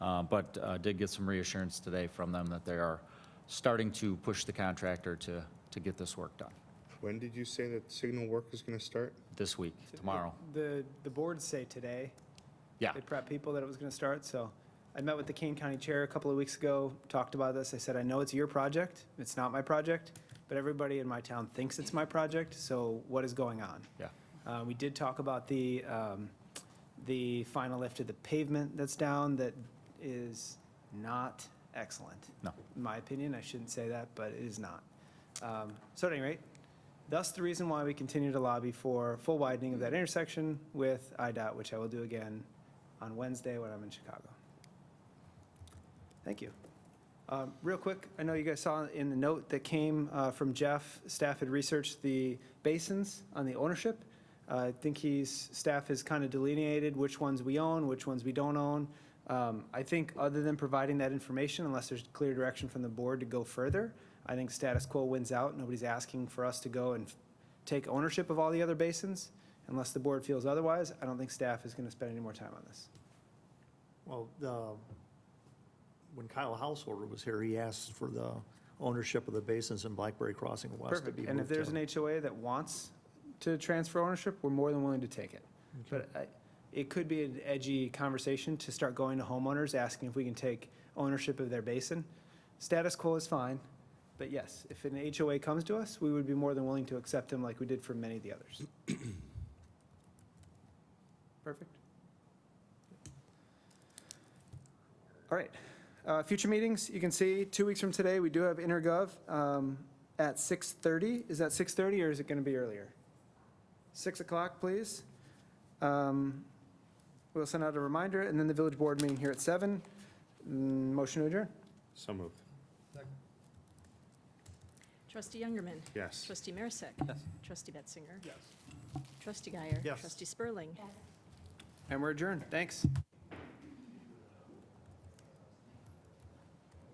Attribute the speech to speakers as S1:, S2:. S1: Uh, But uh, did get some reassurance today from them that they are starting to push the contractor to, to get this work done
S2: When did you say that signal work is going to start?
S1: this week, tomorrow.
S3: The, the boards say today.
S1: Yeah,
S3: They prep people that it was going to start, so. I met with the Kane County Chair a couple of weeks ago, talked about this. I said, I know it's your project, it's not my project, but everybody in my town thinks it's my project, so what is going on?
S1: yeah,
S3: Uh, We did talk about the, um, the final lift of the pavement that's down that is not excellent.
S1: No.
S3: In my opinion, I shouldn't say that, but it is not. Um, So at any rate, thus the reason why we continue to lobby for full widening of that intersection with IDOT, which I will do again on Wednesday when I'm in Chicago. Thank you. Um, Real quick, I know you guys saw in the note that came uh, from Jeff, staff had researched the basins on the ownership. Uh, I think he's, staff has kind of delineated which ones we own, which ones we don't own. Um, I think other than providing that information, unless there's clear direction from the board to go further, I think status quo wins out. Nobody's asking for us to go and take ownership of all the other basins. Unless the board feels otherwise, I don't think staff is going to spend any more time on this.
S4: Well, the, when Kyle Householder was here, he asked for the ownership of the basins in Blackberry Crossing West to be
S3: Perfect. And if
S4: moved
S3: there's
S4: to.
S3: an HOA that wants to transfer ownership, we're more than willing to take it. But I- it could be an edgy conversation to start going to homeowners, asking if we can take ownership of their basin. Status quo is fine, but yes, if an HOA comes to us, we would be more than willing to accept them like we did for many of the others. Perfect. All right. Uh, Future meetings, you can see, two weeks from today, we do have intergov um, at 6:30. Is that 6:30 or is it going to be earlier? 6 o'clock, please. Um, We'll send out a reminder, and then the village board meeting here at 7. Mm, Motion to adjourn.
S2: So moved.
S5: Trustee Youngerman.
S2: Yes.
S5: Trustee Marisak. Trustee Betzinger.
S4: Yes.
S5: Trustee Guyer.
S4: Yes.
S5: Trustee Spurling.
S3: And we're adjourned. Thanks.